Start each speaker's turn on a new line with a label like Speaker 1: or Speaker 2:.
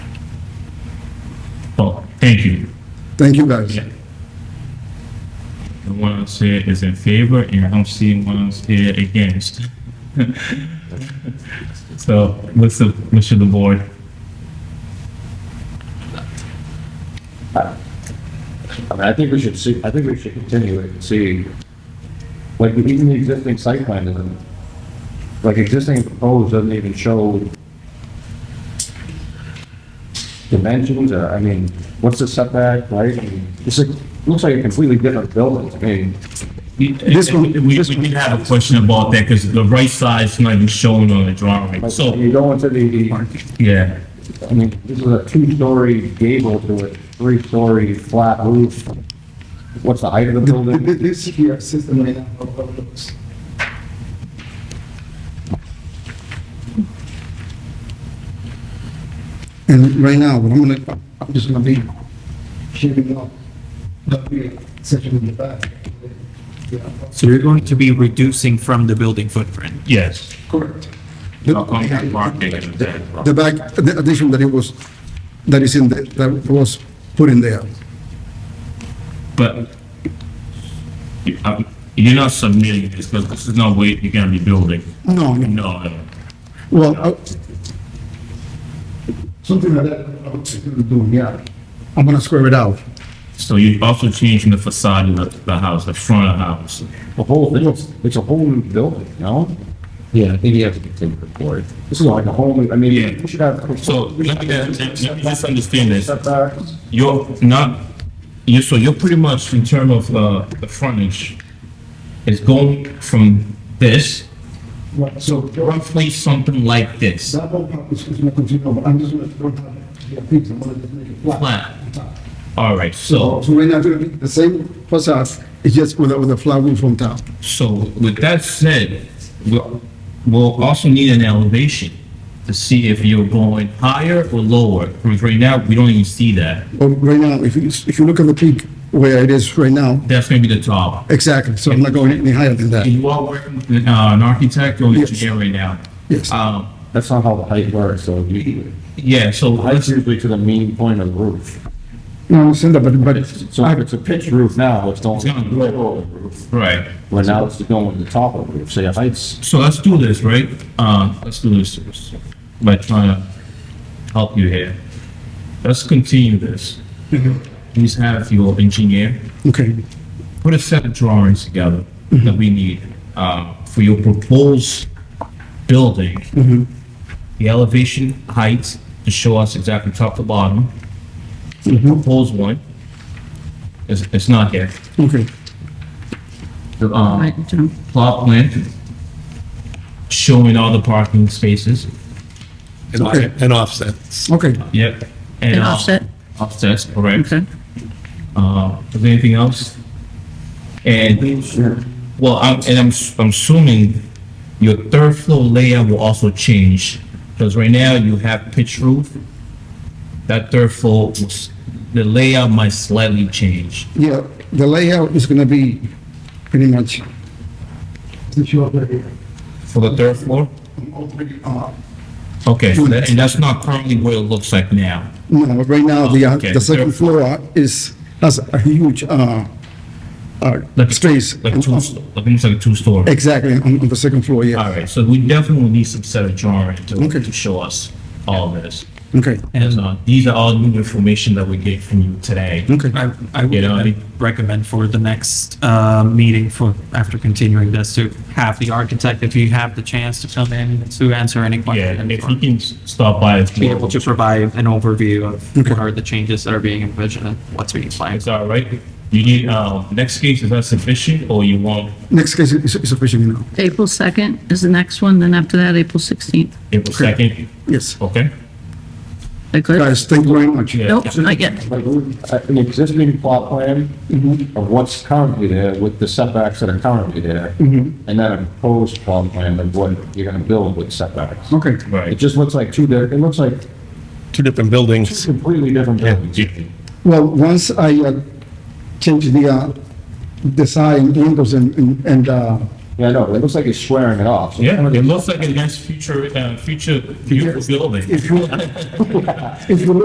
Speaker 1: Thank you.
Speaker 2: Thank you, guys.
Speaker 1: Yeah. The one else here is in favor, and I'm seeing one else here against. So what's the wish of the board?
Speaker 3: I mean, I think we should see, I think we should continue it and see, like, even the existing site plan doesn't, like, existing proposed doesn't even show dimensions, or, I mean, what's the setback, right? I mean, It's like, looks like a completely different building to me.
Speaker 1: This
Speaker 2: one-
Speaker 1: We, we did have a question about that, because the right side's not even shown on the drawing,
Speaker 3: Like,
Speaker 1: so,
Speaker 3: you go into the,
Speaker 1: yeah.
Speaker 3: I mean, this is a two-story gable to a three-story flat roof. What's the height of the building?
Speaker 2: This here system right now. how- how it looks. And right now, what I'm gonna, I'm just gonna be shaping up the big section in the back. Yeah,
Speaker 4: So you're going to be reducing from the building footprint?
Speaker 1: Yes.
Speaker 2: Correct.
Speaker 1: How come the park taking it back?
Speaker 2: The back, the addition that it was, that is in, the- that was put in there.
Speaker 1: But you- um, you're not submitting this, because this is no way you're gonna be building.
Speaker 2: No, no.
Speaker 1: No, no.
Speaker 2: Well, I- something like that, I would consider doing, yeah. I'm gonna square it out.
Speaker 1: So you're also changing the facade of the, the house, the front of the house.
Speaker 3: The whole thing, it's, it's a whole new building, you know?
Speaker 5: Yeah, I think you have to continue the board.
Speaker 3: This is like a whole new, I mean,
Speaker 1: Yeah.
Speaker 3: we should have.
Speaker 1: So let me, let me just understand this.
Speaker 3: Setbacks.
Speaker 1: You're not, you, so you're pretty much in term of, uh, the frontage is going from this, so roughly something like this.
Speaker 2: That whole part is gonna continue, but I'm just gonna throw it out here, please, I'm gonna just make it flat.
Speaker 1: Flat. All right,
Speaker 2: So
Speaker 1: so,
Speaker 2: so right now, it's gonna be the same facade, it's just with a, with a flat roof on top.
Speaker 1: so with that said, we'll, we'll also need an elevation to see if you're going higher or lower, because right now, we don't even see that.
Speaker 2: But right now, if you, if you look at the peak where it is right now,
Speaker 1: That's gonna be the top.
Speaker 2: exactly, so I'm not going any higher than that.
Speaker 1: You are working with an, uh, an architect or
Speaker 2: Yes.
Speaker 1: engineer right now?
Speaker 2: Yes.
Speaker 1: Um,
Speaker 3: That's not how the height works, so you,
Speaker 1: yeah, so let's,
Speaker 3: height's usually to the mean point of the roof.
Speaker 2: No, I understand that, but, but
Speaker 3: So if it's a pitch roof now, it's going
Speaker 1: It's gonna
Speaker 3: to
Speaker 1: grow.
Speaker 3: the roof,
Speaker 1: right,
Speaker 3: but now it's going to the top of the roof, so your height's,
Speaker 1: so let's do this, right? Uh, let's do this by trying to help you here. Let's continue this. Please have your engineer
Speaker 2: Okay,
Speaker 1: put a set of drawings together that we need, uh, for your proposed building. The elevation heights to show us exactly top to bottom. The proposed one. It's, it's not here.
Speaker 2: okay.
Speaker 1: The, um,
Speaker 6: Right, John.
Speaker 1: plot plan showing all the parking spaces.
Speaker 5: And
Speaker 2: Okay.
Speaker 5: and offsets.
Speaker 2: Okay,
Speaker 1: Yep.
Speaker 6: An
Speaker 1: uh,
Speaker 6: offset,
Speaker 1: Offsets, correct.
Speaker 6: okay.
Speaker 1: Uh, is there anything else? And, well, I'm, and I'm, s- I'm assuming your third floor layout will also change, because right now you have pitch roof. That third floor, was- the layout might slightly change.
Speaker 2: yeah, the layout is gonna be pretty much. Since you're already,
Speaker 1: For the third floor?
Speaker 2: already, uh,
Speaker 1: Okay, so that- and that's not currently what it looks like now.
Speaker 2: No, right now, the, uh,
Speaker 1: Okay.
Speaker 2: the second floor is, has a huge, uh, uh,
Speaker 1: Like a-
Speaker 2: space.
Speaker 1: Like a two, like almost like a two-story.
Speaker 2: Exactly, on, on the second floor,
Speaker 1: All
Speaker 2: yeah.
Speaker 1: right, so we definitely need some set of drawings to,
Speaker 2: Okay.
Speaker 1: to show us all this.
Speaker 2: Okay,
Speaker 1: And, uh, these are all new information that we get from you today.
Speaker 2: okay,
Speaker 4: I, I
Speaker 1: You know, I-
Speaker 4: would recommend for the next, uh, meeting for, after continuing this, to have the architect, if you have the chance to come in to answer any
Speaker 1: Yeah, and if you
Speaker 4: questions.
Speaker 1: can s- stop by. as
Speaker 4: Be
Speaker 1: well.
Speaker 4: able to provide an overview of
Speaker 2: Okay.
Speaker 4: what are the changes that are being envisioned and what's being planned.
Speaker 1: It's all right. You need, uh, next case, is that sufficient or you want
Speaker 2: next case is, is officially now,
Speaker 6: April 2nd is the next one, then after that, April 16th.
Speaker 1: April second?
Speaker 2: yes.
Speaker 1: Okay?
Speaker 6: That good?
Speaker 2: Guys, thank you very much.
Speaker 1: Yeah.
Speaker 6: Nope, not yet.
Speaker 3: like, uh, an existing plot plan
Speaker 1: Mm-hmm.
Speaker 3: of what's currently there with the setbacks that are currently there,
Speaker 1: Mm-hmm.
Speaker 3: and then a proposed plot plan of what you're gonna build with setbacks.
Speaker 2: Okay,
Speaker 3: It
Speaker 1: Right.
Speaker 3: just looks like two, di- it looks like
Speaker 5: Two different buildings.
Speaker 3: completely different buildings.
Speaker 2: well, once I, uh, change the, uh, design windows and, and- and, uh,
Speaker 3: Yeah, I know, it looks like it's squaring it off. so-
Speaker 1: Yeah, it looks like a nice future, uh, future beautiful building.
Speaker 2: if you, if you